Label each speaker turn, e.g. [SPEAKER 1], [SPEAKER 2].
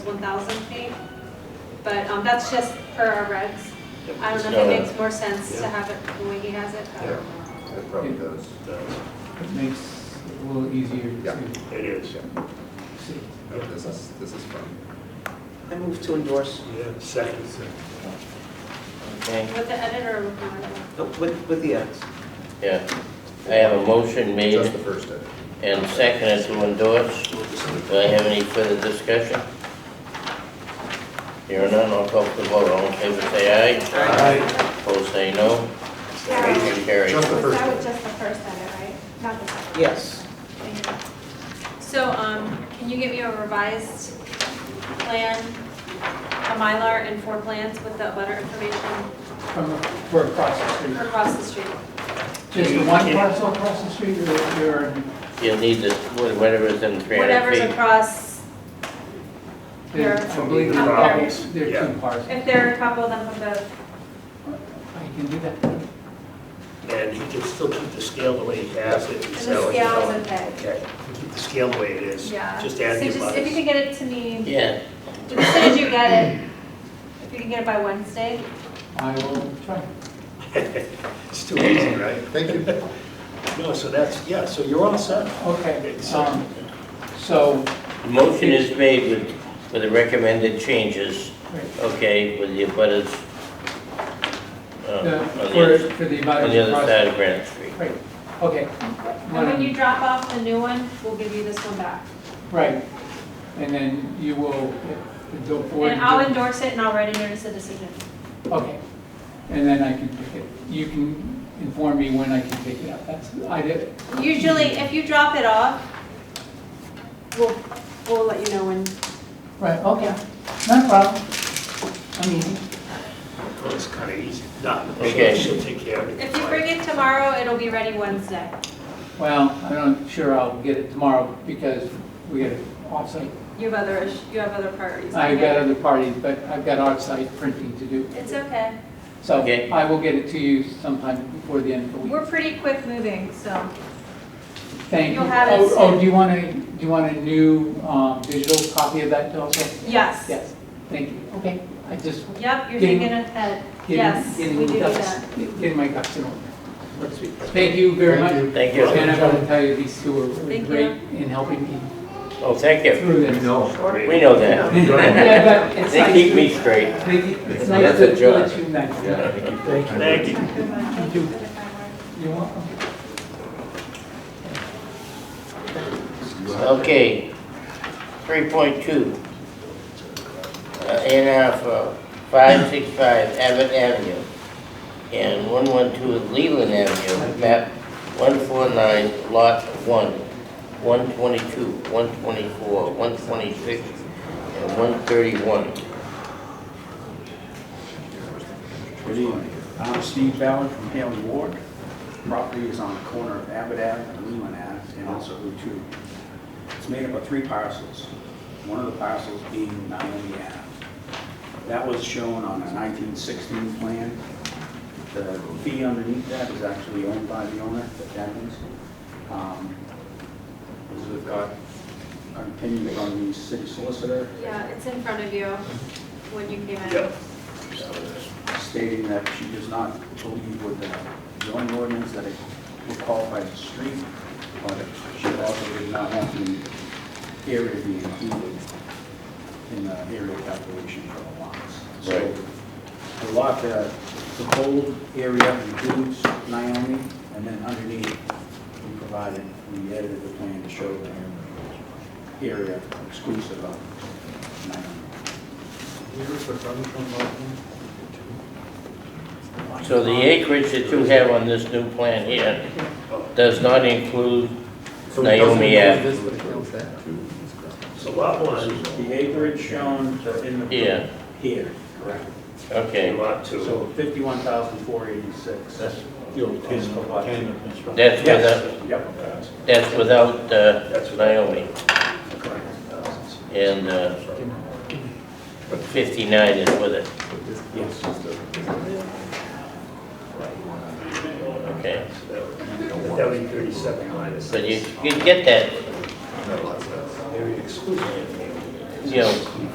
[SPEAKER 1] 1,000 feet. But um, that's just per our regs. I don't know
[SPEAKER 2] Yeah.
[SPEAKER 1] if it makes more sense to
[SPEAKER 2] Yeah.
[SPEAKER 1] have it the way he has it. but-
[SPEAKER 3] Yeah. It probably does.
[SPEAKER 4] It makes it a little easier
[SPEAKER 3] Yeah.
[SPEAKER 4] to
[SPEAKER 2] It is.
[SPEAKER 4] see.
[SPEAKER 3] No, This is, this is fun.
[SPEAKER 5] I move to endorse,
[SPEAKER 2] Yeah, second.
[SPEAKER 6] Okay,
[SPEAKER 1] With the editor, with the-
[SPEAKER 5] uh, with, with the edits.
[SPEAKER 6] yeah. I have a motion
[SPEAKER 3] Just the
[SPEAKER 6] made
[SPEAKER 3] first edit.
[SPEAKER 6] and seconded to endorse. Do I have any further discussion? Here none, I'll call for the vote. All in favor, say aye. Opposed, say no. Motion carries.
[SPEAKER 3] Just the
[SPEAKER 7] Was
[SPEAKER 3] first
[SPEAKER 7] that was
[SPEAKER 3] edit.
[SPEAKER 7] just the first edit, right? Not the second?
[SPEAKER 5] Yes.
[SPEAKER 7] Thank you.
[SPEAKER 1] So, um, can you get me a revised plan, a Mylar and four plans with the butter information
[SPEAKER 4] From, for across the street.
[SPEAKER 1] across the street?
[SPEAKER 4] Just the one parcel across the street or there are,
[SPEAKER 6] You'll need the, whatever's in 300
[SPEAKER 1] Whatever's
[SPEAKER 6] feet.
[SPEAKER 1] across,
[SPEAKER 4] there- I believe there
[SPEAKER 1] Up
[SPEAKER 4] are,
[SPEAKER 1] there.
[SPEAKER 4] there are two parcels.
[SPEAKER 1] if they're a couple, then put the,
[SPEAKER 4] I can do that.
[SPEAKER 2] And he can still keep the scale the way he has it and
[SPEAKER 1] the
[SPEAKER 2] sell it.
[SPEAKER 1] scales and the,
[SPEAKER 2] Okay, keep the scale the way it is.
[SPEAKER 1] yeah.
[SPEAKER 2] Just add
[SPEAKER 1] So
[SPEAKER 2] the
[SPEAKER 1] just, if you
[SPEAKER 2] abutters.
[SPEAKER 1] could get it to me,
[SPEAKER 6] Yeah,
[SPEAKER 1] as soon as you get it, if you can get it by Wednesday,
[SPEAKER 4] I will try.
[SPEAKER 2] It's too easy, right?
[SPEAKER 3] Thank you.
[SPEAKER 2] No, so that's, yeah, so you're all set.
[SPEAKER 4] Okay,
[SPEAKER 2] It's, uh,
[SPEAKER 4] um, so,
[SPEAKER 6] the motion is made with, with the recommended changes,
[SPEAKER 4] right,
[SPEAKER 6] okay, with the abutters. uh, on
[SPEAKER 4] the-
[SPEAKER 6] the
[SPEAKER 4] for,
[SPEAKER 6] other-
[SPEAKER 4] for the
[SPEAKER 6] On the
[SPEAKER 4] abutters
[SPEAKER 6] other
[SPEAKER 4] across.
[SPEAKER 6] side of Granite Street.
[SPEAKER 4] Right, okay.
[SPEAKER 1] and when you drop off the new one, we'll give you this one back.
[SPEAKER 4] Right, and then you will, if the dope board.
[SPEAKER 1] And I'll endorse it and I'll write a notice of decision.
[SPEAKER 4] Okay, and then I can pick it, you can inform me when I can pick it up, that's, I did,
[SPEAKER 1] Usually, if you drop it off, we'll, we'll let you know when.
[SPEAKER 4] right, okay, no problem. I mean,
[SPEAKER 2] Well, it's kind of easy. No,
[SPEAKER 6] Okay.
[SPEAKER 2] she'll- she'll take care of it.
[SPEAKER 1] If you bring it tomorrow, it'll be ready Wednesday.
[SPEAKER 4] well, I'm not sure I'll get it tomorrow because we got offsite.
[SPEAKER 1] You have other, ish- you have other priorities.
[SPEAKER 4] I've got other parties, but I've got offsite printing to do.
[SPEAKER 1] It's okay.
[SPEAKER 4] So
[SPEAKER 6] Okay.
[SPEAKER 4] I will get it to you sometime before the end of the week.
[SPEAKER 1] We're pretty quick moving, so.
[SPEAKER 4] Thank you.
[SPEAKER 1] you'll have it
[SPEAKER 4] Oh, Oh,
[SPEAKER 1] soon.
[SPEAKER 4] do you want a, do you want a new um, digital copy of that also?
[SPEAKER 1] Yes.
[SPEAKER 4] Yes, thank you, okay, I just
[SPEAKER 1] Yep, you're
[SPEAKER 4] Getting-
[SPEAKER 1] thinking ahead.
[SPEAKER 4] Getting-
[SPEAKER 1] Yes, we
[SPEAKER 4] getting
[SPEAKER 1] do do
[SPEAKER 4] ducks-
[SPEAKER 1] that.
[SPEAKER 4] Getting my ducks in order. Thank you very much.
[SPEAKER 6] Thank
[SPEAKER 4] And
[SPEAKER 6] you.
[SPEAKER 4] I want to tell you, these two are really
[SPEAKER 1] Thank
[SPEAKER 4] great in helping me
[SPEAKER 6] Oh, thank you.
[SPEAKER 4] through this.
[SPEAKER 6] We know that.
[SPEAKER 4] Yeah, but it's
[SPEAKER 6] They
[SPEAKER 4] nice
[SPEAKER 6] keep
[SPEAKER 4] to-
[SPEAKER 6] me straight.
[SPEAKER 4] they keep- It's nice
[SPEAKER 6] That's
[SPEAKER 4] to
[SPEAKER 6] a job.
[SPEAKER 4] let you know.
[SPEAKER 2] Thank
[SPEAKER 7] Thank
[SPEAKER 2] you.
[SPEAKER 7] you for the kind words.
[SPEAKER 4] You're welcome.
[SPEAKER 6] Okay, three point two. Uh, In for five six five Abbott Avenue and one one two Leland Avenue, map one four nine, lot one, one twenty-two, one twenty-four, one twenty-six, and one thirty-one.
[SPEAKER 8] Good evening. I'm Steve Ballard from Haley Ward. Property is on the corner of Abbott Ave and Lehman Ave, and also Route 2. It's made up of three parcels, one of the parcels being Naomi Ave. That was shown on a 1916 plan. The fee underneath that is actually owned by the owner, the Devens. Um, because We've got an opinion from the city solicitor
[SPEAKER 1] Yeah, it's in front of you when you came in.
[SPEAKER 2] Yep.
[SPEAKER 8] stating that she does not believe with the zoning ordinance that it will qualify as a street, but she also did not want the area to be included in the area calculation for the lots. So
[SPEAKER 6] Right.
[SPEAKER 8] the lot, uh, the whole area includes Naomi, and then underneath, we provided, we edited the plan to show the area exclusive of Naomi.
[SPEAKER 6] So the acreage that you have on this new plan here does not include Naomi Ave.
[SPEAKER 2] So lot one,
[SPEAKER 8] The acreage shown in the.
[SPEAKER 6] Yeah.
[SPEAKER 8] Here, correct.
[SPEAKER 6] Okay,
[SPEAKER 2] lot two.
[SPEAKER 8] So 51,486. That's is the lot.
[SPEAKER 6] that's without,
[SPEAKER 8] Yes, yep,
[SPEAKER 6] that's without
[SPEAKER 2] That's
[SPEAKER 6] uh, Naomi.
[SPEAKER 8] correct.
[SPEAKER 6] And uh, 59 is with it,
[SPEAKER 8] Yes.
[SPEAKER 6] okay.
[SPEAKER 2] That would be thirty-seven minus.
[SPEAKER 6] But you you get that,
[SPEAKER 3] No, lots of-
[SPEAKER 2] Area exclusion.
[SPEAKER 6] you know,